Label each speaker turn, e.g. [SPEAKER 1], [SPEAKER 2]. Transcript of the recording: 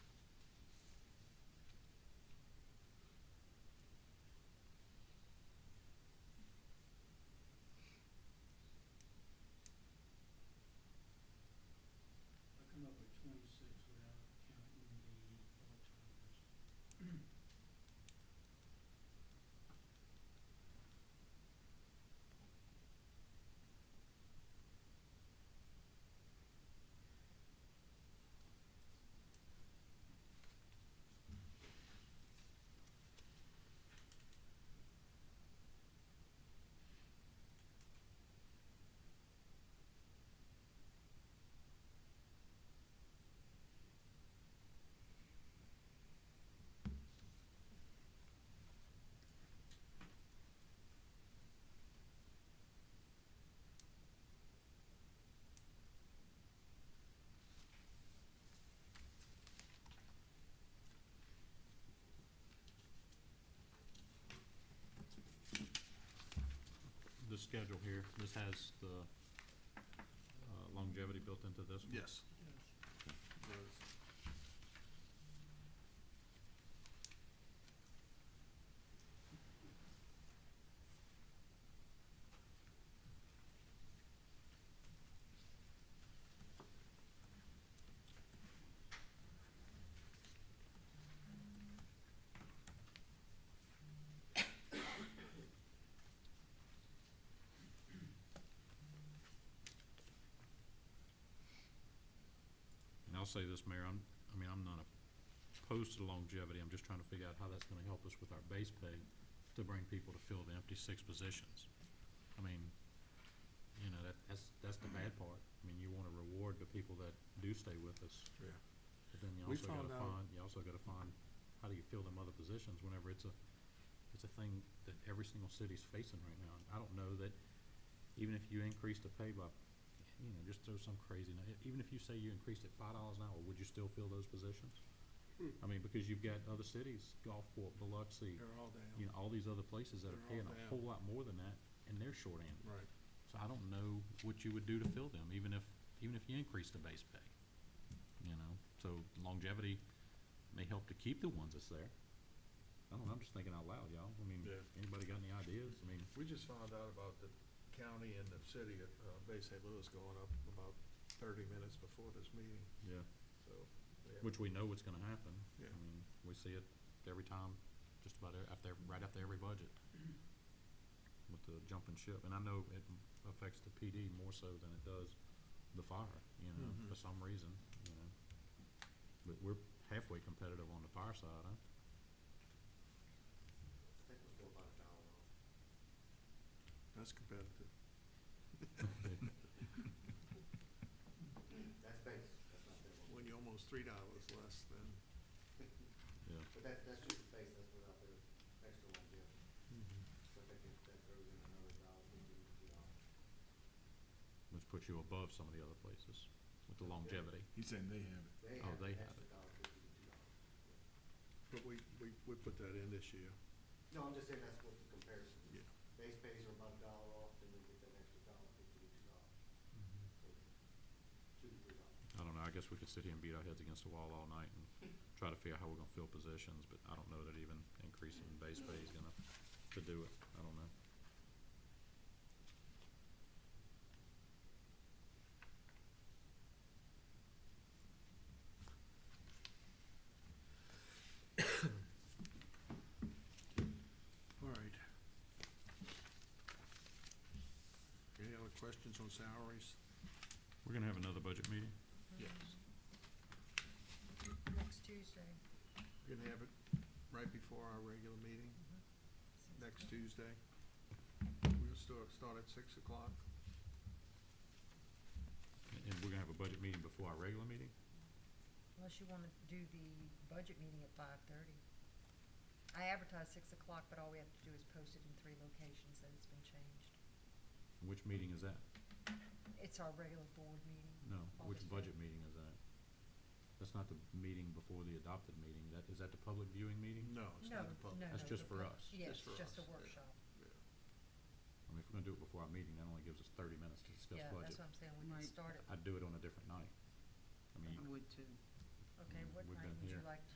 [SPEAKER 1] schedule here, this has the uh, longevity built into this one?
[SPEAKER 2] Yes. There is.
[SPEAKER 1] And I'll say this, Mayor, I'm, I mean, I'm not opposed to longevity, I'm just trying to figure out how that's gonna help us with our base pay to bring people to fill the empty six positions. I mean, you know, that, that's, that's the bad part. I mean, you wanna reward the people that do stay with us.
[SPEAKER 2] Yeah.
[SPEAKER 1] But then you
[SPEAKER 2] We
[SPEAKER 1] also gotta
[SPEAKER 2] found out-
[SPEAKER 1] find, you also gotta find, how do you fill them other positions whenever it's a, it's a thing that every single city's facing right now. And I don't know that, even if you increase the pay by, you know, just throw some crazy, nu- e, even if you say you increased it five dollars an hour, would you still fill those positions?
[SPEAKER 2] Hmm.
[SPEAKER 1] I mean, because you've got other cities, Gulfport, Biloxi,
[SPEAKER 2] They're all down.
[SPEAKER 1] you know, all these other places that are paying
[SPEAKER 2] They're all
[SPEAKER 1] a
[SPEAKER 2] down.
[SPEAKER 1] whole lot more than that, and they're short-handed.
[SPEAKER 2] Right.
[SPEAKER 1] So I don't know what you would do to fill them, even if, even if you increase the base pay, you know? So longevity may help to keep the ones that's there. I don't know, I'm just thinking out loud, y'all. I mean,
[SPEAKER 2] Yeah.
[SPEAKER 1] anybody got any ideas? I mean,
[SPEAKER 2] We just found out about the county and the city of uh, Bay St. Louis going up about thirty minutes before this meeting,
[SPEAKER 1] yeah,
[SPEAKER 2] so. they have-
[SPEAKER 1] which we know what's gonna happen.
[SPEAKER 2] Yeah.
[SPEAKER 1] I mean, we see it every time, just about e- after, right after every budget with the jumping ship. And I know it m- affects the PD more so than it does the fire, you know,
[SPEAKER 2] Mhm.
[SPEAKER 1] for some reason, you know. But we're halfway competitive on the fire side, huh?
[SPEAKER 3] I think it was more about a dollar off.
[SPEAKER 2] That's competitive.
[SPEAKER 3] That's base, that's not payroll.
[SPEAKER 2] When you're almost three dollars less than,
[SPEAKER 1] Yeah.
[SPEAKER 3] But that, that's just the base, that's without their extra ones, yeah. But that gets, that throws in another dollar, maybe two dollars.
[SPEAKER 1] Which puts you above some of the other places with the longevity.
[SPEAKER 4] He's saying they have it.
[SPEAKER 3] They
[SPEAKER 1] Oh,
[SPEAKER 3] have
[SPEAKER 1] they
[SPEAKER 3] an
[SPEAKER 1] have
[SPEAKER 3] extra dollar fifty to two dollars.
[SPEAKER 2] but we, we, we put that in this year.
[SPEAKER 3] No, I'm just saying that's what the comparison is.
[SPEAKER 2] Yeah.
[SPEAKER 3] Base pays are about a dollar off, and then we get that extra dollar fifty to two dollars, so two to three dollars.
[SPEAKER 1] I don't know, I guess we could sit here and beat our heads against the wall all night and try to figure out how we're gonna fill positions, but I don't know that even increasing base pay is gonna, to do it, I don't know.
[SPEAKER 2] All right. Any other questions on salaries?
[SPEAKER 1] We're gonna have another budget meeting?
[SPEAKER 2] Yes.
[SPEAKER 5] Next Tuesday.
[SPEAKER 2] We're gonna have it right before our regular meeting, next Tuesday. We'll start, start at six o'clock.
[SPEAKER 1] And- And we're gonna have a budget meeting before our regular meeting?
[SPEAKER 5] Unless you wanna do the budget meeting at five thirty. I advertise six o'clock, but all we have to do is post it in three locations that it's been changed.
[SPEAKER 1] Which meeting is that?
[SPEAKER 5] It's our regular board meeting.
[SPEAKER 1] No, which
[SPEAKER 5] August
[SPEAKER 1] budget meeting is that? That's not the meeting before the adopted meeting, that, is that the public viewing meeting?
[SPEAKER 2] No, it's
[SPEAKER 5] No,
[SPEAKER 2] not a
[SPEAKER 5] no,
[SPEAKER 2] public.
[SPEAKER 1] That's
[SPEAKER 5] no,
[SPEAKER 1] just
[SPEAKER 5] the
[SPEAKER 1] for
[SPEAKER 5] pub-
[SPEAKER 1] us.
[SPEAKER 5] Yes,
[SPEAKER 2] Just for
[SPEAKER 5] just a
[SPEAKER 2] us, yeah.
[SPEAKER 5] workshop.
[SPEAKER 1] I mean, if we're gonna do it before our meeting, that only gives us thirty minutes to discuss
[SPEAKER 5] Yeah,
[SPEAKER 1] budget.
[SPEAKER 5] that's what I'm saying, we can
[SPEAKER 6] Right.
[SPEAKER 5] start it.
[SPEAKER 1] I'd do it on a different night. I mean,
[SPEAKER 6] I would too.
[SPEAKER 5] Okay,
[SPEAKER 1] Mm,
[SPEAKER 5] what
[SPEAKER 1] we've
[SPEAKER 5] night
[SPEAKER 1] been
[SPEAKER 5] would you
[SPEAKER 1] here.